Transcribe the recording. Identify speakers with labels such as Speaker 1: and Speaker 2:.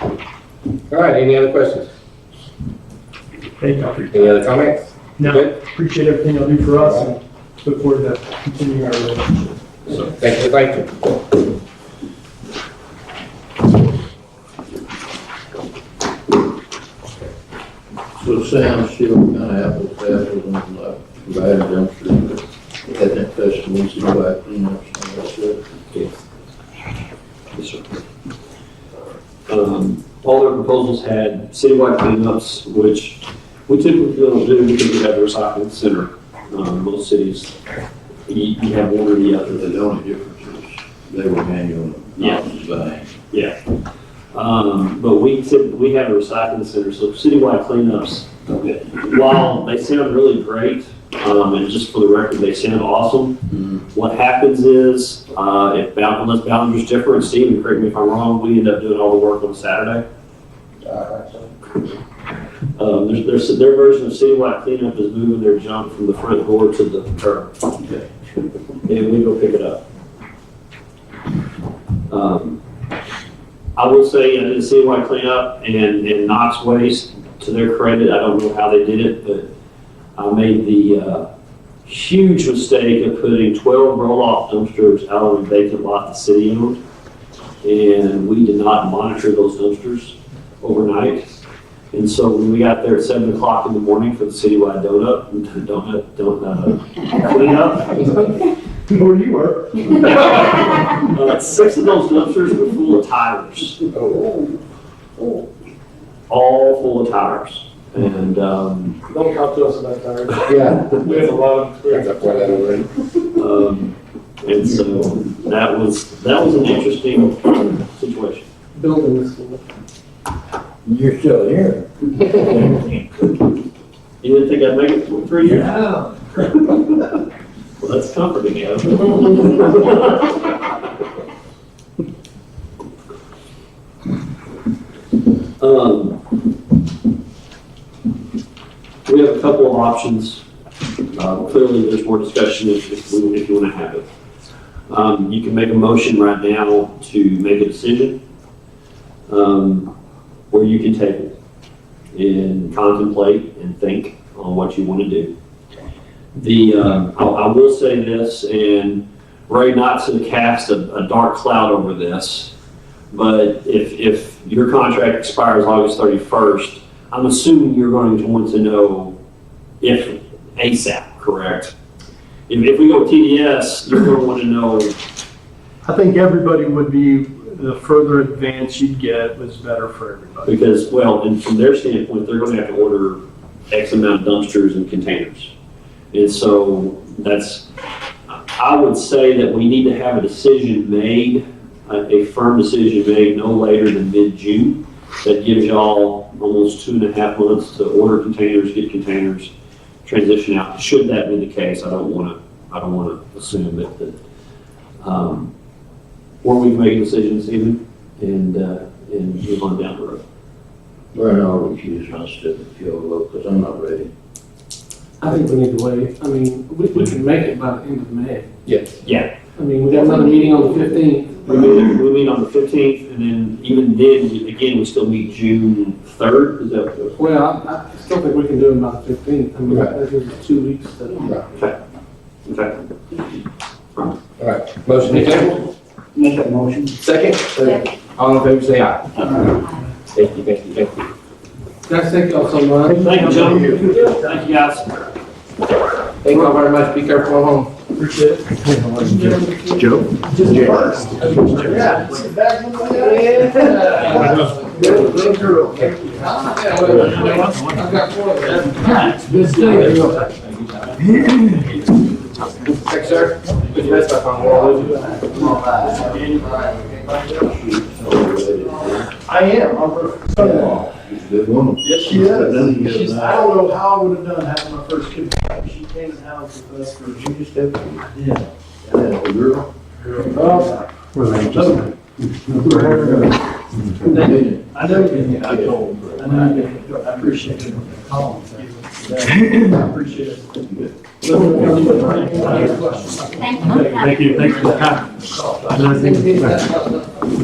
Speaker 1: All right, any other questions?
Speaker 2: Thank you.
Speaker 1: Any other comments?
Speaker 2: No,
Speaker 1: Good.
Speaker 2: appreciate everything you'll do for us and look forward to continuing our relationship. So,
Speaker 1: Thank you, thank you.
Speaker 3: So Sam, still kind of apples to apples on like provided dumpster, but had that festival, see why cleanups and all that stuff.
Speaker 4: Yes, sir. Um, All their proposals had citywide cleanups, which we typically don't do because we have a recycling center. Um, Most cities, you you have one or the other.
Speaker 3: But the only difference is they were manual, not design.
Speaker 4: Um, But we typ- we have a recycling center, so citywide cleanups,
Speaker 3: Okay.
Speaker 4: while they sound really great, um, and just for the record, they sound awesome,
Speaker 3: Mm-hmm.
Speaker 4: What happens is, uh, if bound, unless boundaries differ, and Steve, and correct me if I'm wrong, we end up doing all the work on Saturday. Um, there's, there's, their version of citywide cleanup is moving their junk from the front door to the curb.
Speaker 3: Okay.
Speaker 4: And we go pick it up. Um, I will say, I did a citywide cleanup and, and Knox Waste, to their credit, I don't know how they did it, but I made the, uh, huge mistake of putting 12 roll-off dumpsters out on a vacant lot the city owned. And we did not monitor those dumpsters overnight. And so when we got there at 7 o'clock in the morning for the citywide donut, donut, donut, uh, cleanup,
Speaker 2: where you were,
Speaker 4: uh, six of those dumpsters were full of tires. All full of tires. And, um,
Speaker 5: Don't talk to us about tires.
Speaker 1: Yeah.
Speaker 5: We have a lot of
Speaker 1: That's
Speaker 5: experience.
Speaker 1: up for that over. in.
Speaker 4: um, and so that was, that was an interesting situation.
Speaker 5: Building this one.
Speaker 3: You're still here.
Speaker 4: You didn't think I'd make it for three years?
Speaker 3: Yeah.
Speaker 4: Well, that's comforting, yeah. Um, We have a couple of options. Uh, Clearly, there's more discussion if if we- if you want to have it. Um, You can make a motion right now to make a decision, um, or you can table it and contemplate and think on what you want to do. The, um, I, I will say this, and Ray Knox has cast a, a dark cloud over this, but if, if your contract expires August 31st, I'm assuming you're going to want to know if ASAP, correct? If, if we go with TDS, you're going to want to know,
Speaker 2: I think everybody would be, the further advance you'd get was better for everybody.
Speaker 4: because, well, and from their standpoint, they're going to have to order X amount of dumpsters and containers. And so that's, I would say that we need to have a decision made, a a firm decision made no later than mid-June. That gives y'all almost two and a half months to order containers, get containers, transition out. Should that be the case, I don't want to, I don't want to assume that, that, um, or we can make a decision this evening and, uh, and move on down the road.
Speaker 3: Well, no, I'll refuse my step and feel low, because I'm not ready.
Speaker 5: I think we need to wait. I mean, we, we can make it by the end of May.
Speaker 1: Yes.
Speaker 5: I mean, we got another meeting on the fifteenth.
Speaker 4: We
Speaker 5: Um,
Speaker 4: meet, we meet on the fifteenth, and then even then, we- again, we still meet June third, is that? what-
Speaker 5: Well, I, I still think we can do it by the fifteenth. I mean, that gives us two weeks to.
Speaker 4: Okay.
Speaker 1: All right, motion to table?
Speaker 6: Make a motion.
Speaker 1: Second? Second. All in favor, say aye. Thank you, thank you, thank you.
Speaker 5: Guys, thank y'all so much.
Speaker 4: Thank you, gentlemen. Thank you, guys.
Speaker 1: Thank you all very much, be careful at home.
Speaker 2: Appreciate it.
Speaker 3: Joe?
Speaker 1: Yeah. Good, good girl.
Speaker 5: I've got four of them. Good
Speaker 1: There you
Speaker 5: stuff.
Speaker 1: go. Thanks, sir. Put your vest back on, we're all losing.
Speaker 7: I am, I'm her son-in-law.
Speaker 3: She's a good woman.
Speaker 7: Yes, she is. She's, I don't know how I would have done having my first kid, she came in the house with us for.
Speaker 3: She just had, yeah, that old girl.
Speaker 7: Well, I know, you- I told her, and I, I appreciate it. Colin, thank you. I appreciate it.
Speaker 8: Thank you.
Speaker 2: Thank you, thanks for the time.
Speaker 5: Thank you.